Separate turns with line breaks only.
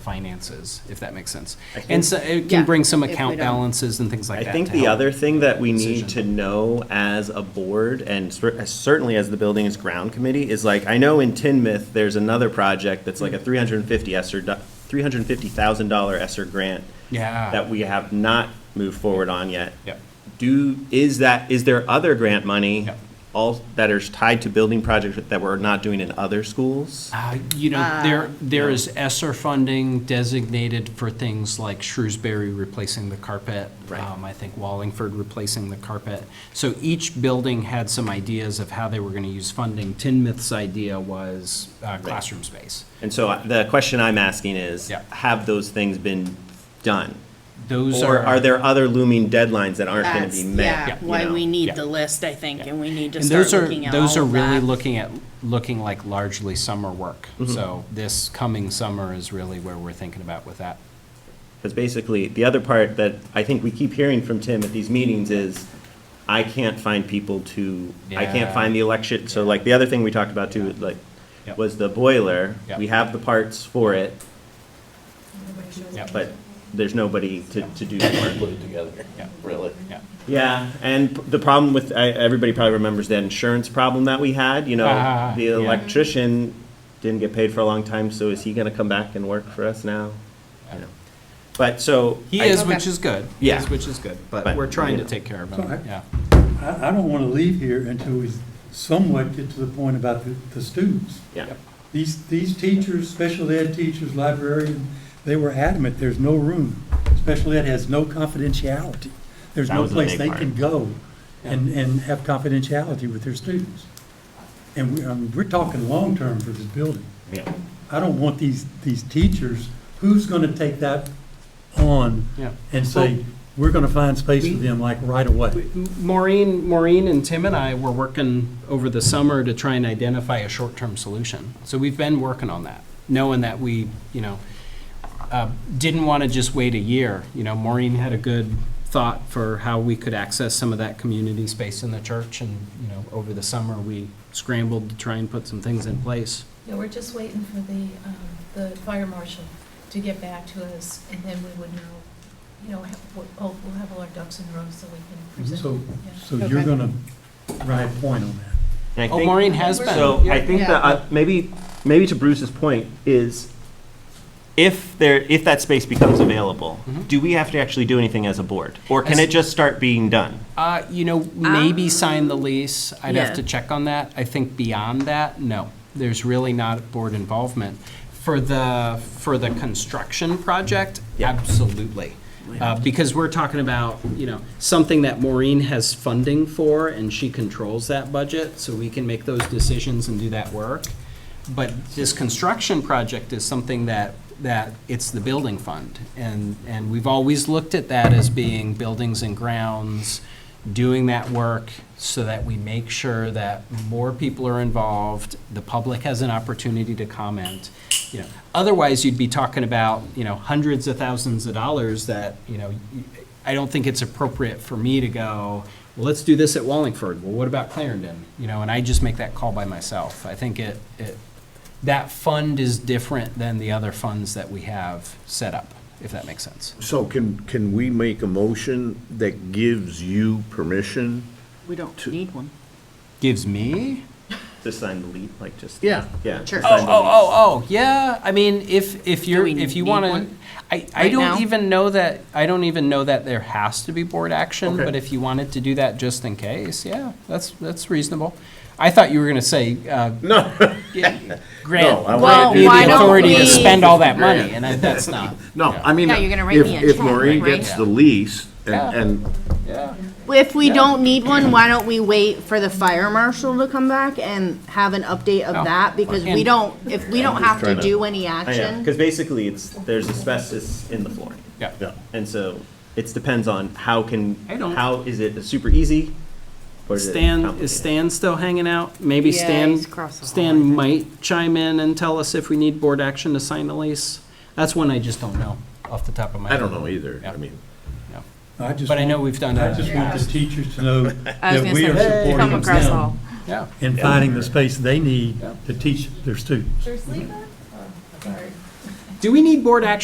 finances, if that makes sense.
I think-
And so it
Yeah,
can bring some
if we
account
don't-
balances and things like
I
that.
think
to
the
help.
other thing that we need to
decision.
know as a board, and cer- certainly as the Buildings Ground Committee, is like, I know in Tinmouth, there's another project that's
Hmm.
like a three hundred and fifty Esser, three hundred and fifty thousand dollar Esser grant
Yeah.
that we have not moved forward on yet.
Yep.
Do, is that, is there other grant money
Yep.
all, that is tied to building projects that we're not doing in other schools?
Uh, You know, there, there is ESSER funding designated for things like Shrewsbury replacing the carpet.
Right.
um, I think Wallingford replacing the carpet. So each building had some ideas of how they were going to use funding. Tinmouth's idea was uh, classroom space.
And so I- the question I'm asking is,
Yep.
have those things been done?
Those
Or
are.
are there other looming deadlines that aren't going to
That's,
be met?
yeah,
you
why
know?
we need
Yeah.
the list, I think, and we need to
And those
start
are,
looking at all of
those
that.
are really looking at, looking like largely summer work.
Mm-hmm.
So this coming summer is really where we're thinking about with that.
Because basically, the other part that I think we keep hearing from Tim at these meetings is, I can't find people to, I can't
Yeah.
find the election, so like, the other thing we talked about too, like,
Yep.
was the boiler.
Yep.
We have the parts for it,
Yep.
but there's nobody to, to do the work.
put it together,
Yeah.
really.
Yeah.
Yeah, and p- the problem with, I- everybody probably remembers that insurance problem that we had, you know?
Ah,
The
yeah.
electrician didn't get paid for a long time, so is he gonna come back and work for us now? You know. But, so.
He
I-
is, which is good. He
Yeah.
is, which is good, but
But,
we're trying to
yeah.
take care of
It's all
him,
right.
yeah.
I, I don't want to leave here until we somewhat get to the point about the, the students.
Yeah.
These, these teachers, special ed teachers, librarian, they were adamant, there's no room. Special ed has no confidentiality. There's
That
no
was the
place
big
they
part.
can go and, and have confidentiality with their students. And we, I mean, we're talking long-term for this building.
Yeah.
I don't want these, these teachers, who's going to take that on
Yeah.
and say, we're going to find space for
We-
them like right away?
Maureen, Maureen and Tim and I were working over the summer to try and identify a short-term solution. So we've been working on that, knowing that we, you know, uh, didn't want to just wait a year. You know, Maureen had a good thought for how we could access some of that community space in the church. And, you know, over the summer, we scrambled to try and put some things in place.
Yeah, we're just waiting for the, um, the fire marshal to get back to us, and then we would know, you know, have, what- oh, we'll have all our ducks in a row so we can present.
Mhm. So,
yeah.
so you're
Okay.
gonna write a point on that.
And I
Oh,
think-
Maureen has been.
So I
Yeah.
think that, uh, maybe, maybe to Bruce's point is if there, if that space becomes available, do we have to actually do anything as a board? Or can
Mm-hmm. As-
it just start being done?
Uh, you know, maybe sign the lease. I'd have
yeah.
to check on that. I think beyond that, no. There's really not board involvement. For the, for the construction project,
Yeah.
absolutely. Uh, because we're talking about, you know, something that Maureen has funding for and she controls that budget, so we can make those decisions and do that work. But this construction project is something that, that it's the building fund. And, and we've always looked at that as being buildings and grounds, doing that work so that we make sure that more people are involved, the public has an opportunity to comment. You know, otherwise you'd be talking about, you know, hundreds of thousands of dollars that, you know, I don't think it's appropriate for me to go, well, let's do this at Wallingford. Well, what about Clarendon? You know, and I just make that call by myself. I think it, it, that fund is different than the other funds that we have set up, if that makes sense.
So can, can we make a motion that gives you permission?
We don't need one.
Gives me?
To sign the lease, like just?
Yeah.
Yeah.
Sure.
to
Oh,
sign
oh,
the lease.
oh, oh, yeah, I mean, if, if you're,
we
if you
need
wanna,
one
I, I
right now?
don't even know that, I don't even know that there has to be board action,
Okay.
but if you wanted to do that just in case, yeah, that's, that's reasonable. I thought you were gonna say, uh,
No. No, I
grant,
wanna
Well,
do
you
the
why
the
don't
authority to
we-
spend all that
Grand.
money, and I- that's not,
No, I mean,
Yeah, you're gonna write
if,
me a
if
check,
Maureen
right?
gets the lease
Yeah.
and, and
yeah.
If we don't need one, why don't we wait for the fire marshal to come back and have an update
Oh.
of that? Because
And-
we don't, if we don't have to
trying to-
do any
I know,
action,
because basically it's, there's asbestos in the flooring.
Yeah.
Yeah.
And so it depends on how can,
I don't-
how, is it super easy? or is it
Stan,
complicated?
is Stan still hanging out? Maybe
Yeah,
Stan,
he's across the hall, I
Stan
think.
might chime in and tell us if we need board action to sign the lease. That's one I just don't know off the top of my
I
head.
don't know either.
Yeah.
I mean,
Yeah.
I just
But I
want-
know we've done
I
that.
just want the teachers to know
I was
that
gonna
we are
say, come
supporting
across all.
them
Yeah.
in finding the space they need
Yeah.
to teach their students.
There's Leva? Oh, sorry.
Do we need board action